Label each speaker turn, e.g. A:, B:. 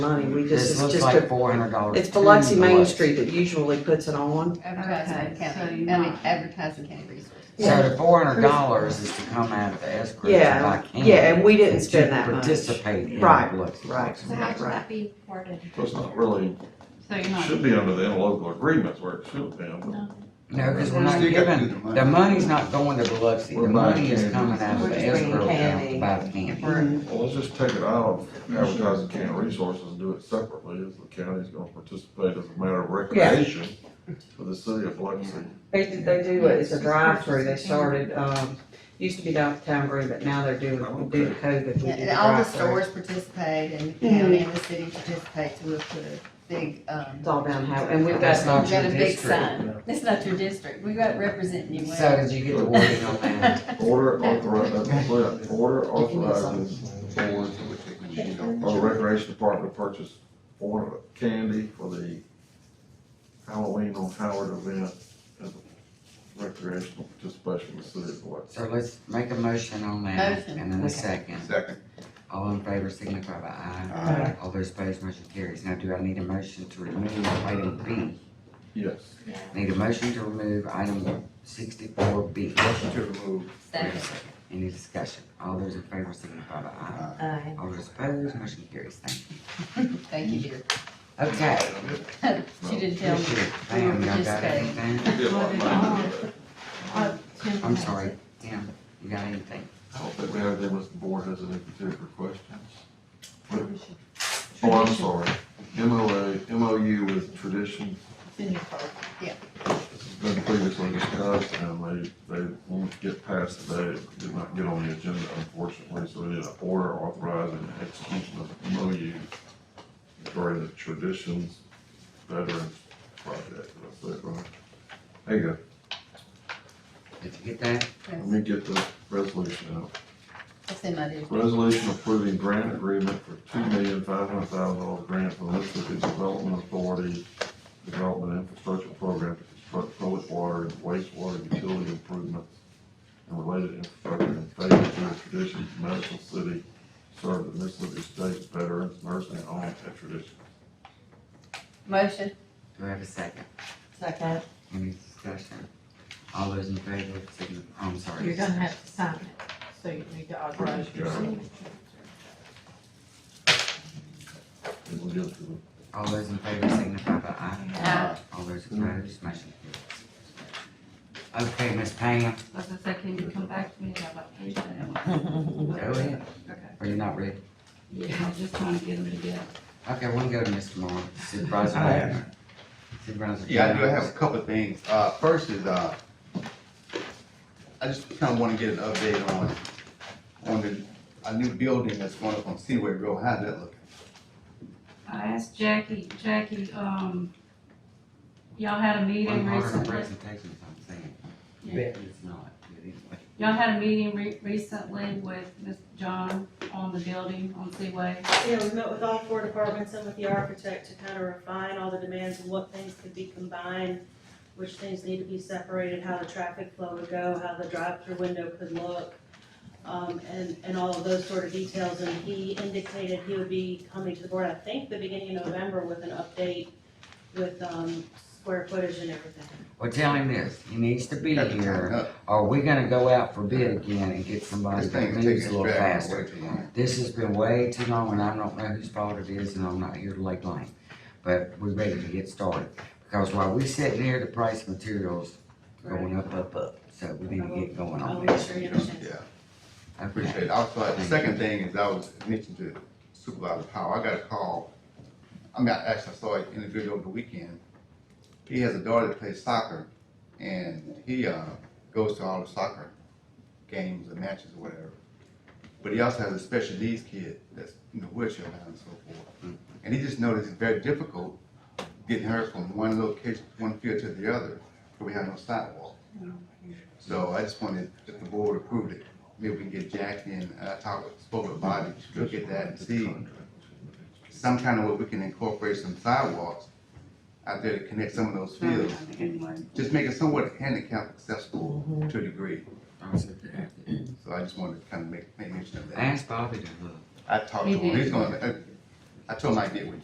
A: money, we just,
B: This
A: it's
B: looks
A: just
B: like
A: a,
B: four hundred dollars.
A: it's Biloxi Main Street that usually puts it on.
C: Advertising
D: Okay, so
C: county,
D: you're
C: I mean,
D: not-
C: advertising county resources.
B: So the four hundred dollars is to come out of the escrow that I
A: Yeah,
B: can.
A: yeah, and we didn't
B: to
A: spend that much.
B: Participate in
A: Right,
B: Biloxi.
A: right.
E: So how should that be worded?
F: So it's not really,
D: So you're not.
F: should be under the interlocal agreements where it should have been.
B: No, cause we're
G: We
B: not
G: still got to do
B: giving,
G: money.
B: the money's not going to Biloxi, the
F: We're buying
B: money is
F: candy.
B: coming out of
A: We're
B: the
A: just bringing
B: escrow account
A: candy.
B: to buy the candy.
A: Mhm.
F: Well, let's just take it out of advertising county resources and do it separately, as the county's gonna participate as a matter of recreation for the city of Biloxi.
A: They, they do, it. it's a drive-through, they started, um, used to be downtown Green, but now they're doing, due to COVID, we did
C: And
A: a
C: all the
A: drive-through.
C: stores participate and the county and the city participate, so we'll put a big, um,
A: It's all down how, and we've
B: That's
A: got,
B: not
C: got
B: your
C: a big
B: district.
C: sign. That's not your district. We got representing you
B: So
C: well.
B: did you get the wording on that?
F: Order authorizing, order authorizing board or recreation department to purchase four hundred candy for the Halloween on Howard event as a recreational participation in the city of Biloxi.
B: So let's make a motion on that
C: Motion.
B: and then a
A: Okay.
B: second.
G: Second.
B: All in favor signify by aye.
A: Aye.
B: All those opposed, motion carries. Now, do I need a motion to remove item B?
F: Yes.
B: Need a motion to remove item sixty-four B.
G: To remove.
C: Second.
B: Any discussion? All those in favor signify by aye.
D: Uh,
C: Aye.
B: All those opposed, motion carries. Thank
C: Thank you, dear.
B: you. Okay.
C: She didn't tell me.
B: Appreciate it. Pam, y'all got anything?
F: Did one, man.
D: Uh, Tim
B: I'm
D: has
B: sorry,
D: it.
B: Pam, you got anything?
F: I don't think we have them, unless the board has any particular questions.
D: Tradition.
F: Oh, I'm sorry, MOA, MOU with tradition,
C: It's in your folder. Yeah.
F: this has been previously discussed, and they, they won't get passed today, It did not get on the agenda unfortunately, so we need an order authorizing the execution of MOU regarding the traditions veterans project, did I say it right? There you go,
B: Did you get that?
F: let
C: That's-
F: me get the resolution out.
C: That's in my district.
F: Resolution approving grant agreement for two million five hundred thousand dollar grant from Mississippi Development Authority Development Infrastructure Program to construct public water and wastewater utility improvements and related infrastructure in favor of the Traditions Medical City, serve the Mississippi State Veterans Nursing Home and Tradition.
C: Motion.
B: Do I have a second?
C: Second.
B: Any discussion? All those in favor signify, I'm sorry.
D: You're gonna have to sign it, so you need to authorize your
F: Yeah.
D: signature.
F: And we'll give it to them.
B: All those in favor signify by aye.
C: Aye.
B: All those opposed, motion carries. Okay, Miss Pam,
D: I was gonna say, can you come back to me about page that?
B: go ahead.
D: Okay.
B: Are you not ready?
D: Yeah, I'm just trying to get them together.
B: Okay, we'll go to Mr. Moore, Supervisor
G: I have-
B: Wagner. Supervisor.
G: Yeah, I do
B: Jones.
G: have a couple of things. Uh, first is, uh, I just kinda wanna get an update on, on the, a new building that's going up on Seaway Road. How's that looking?
H: I asked Jackie, Jackie, um, y'all had a
B: One
H: meeting
B: part of the
H: recently.
B: presentation, I'm saying.
H: Yeah.
B: Bet it's not, but anyway.
H: Y'all had a meeting re- recently with Ms. John on the building on Seaway.
I: Yeah, we met with all four departments and with the architect to kind of refine all the demands of what things could be combined, which things need to be separated, how the traffic flow would go, how the drive-through window could look, um, and, and all of those sort of details. And he indicated he would be coming to the board, I think, the beginning of November with an update with, um, square footage and everything.
B: Well, tell him this, he needs to be
G: Got the time
B: here,
G: up.
B: or we're gonna go out for bid again and get somebody
G: This
B: that
G: thing's
B: moves a
G: taking
B: little
G: us
B: faster.
G: back way too long.
B: This has been way too long, and I don't know whose fault it is, and I'm not here to lay blame, but we're ready to get started. Because while we sitting here, the price of materials going up, up, up, so we need to get going
I: I'll
B: on
I: make
B: this.
I: sure you understand.
G: Yeah.
B: Okay.
G: Appreciate it. Also, the second thing is I was mentioning to Supervisor Powell, I got a call. I mean, I actually saw an individual over the weekend. He has a daughter that plays soccer and he, uh, goes to all the soccer games and matches or whatever. But he also has a special needs kid that's, you know, wheelchair bound and so forth. And he just noticed it's very difficult getting her from one location, one field to the other, because we have no sidewalk. So I just wanted, if the board approved it, maybe we can get Jackie and, uh, talk, with- spoke with Bobby, look at that and see some kind of way we can incorporate some sidewalks out there to connect some of those
H: Mm-hmm.
G: fields.
H: Anyway.
G: Just make it somewhat handicap accessible to a degree,
B: I was at the-
G: so I just wanted to kind of make, make mention of that.
B: Ask Bobby to look.
G: I talked to
D: He
G: him,
D: did.
G: he's gonna, uh, I- I told him I'd get with you.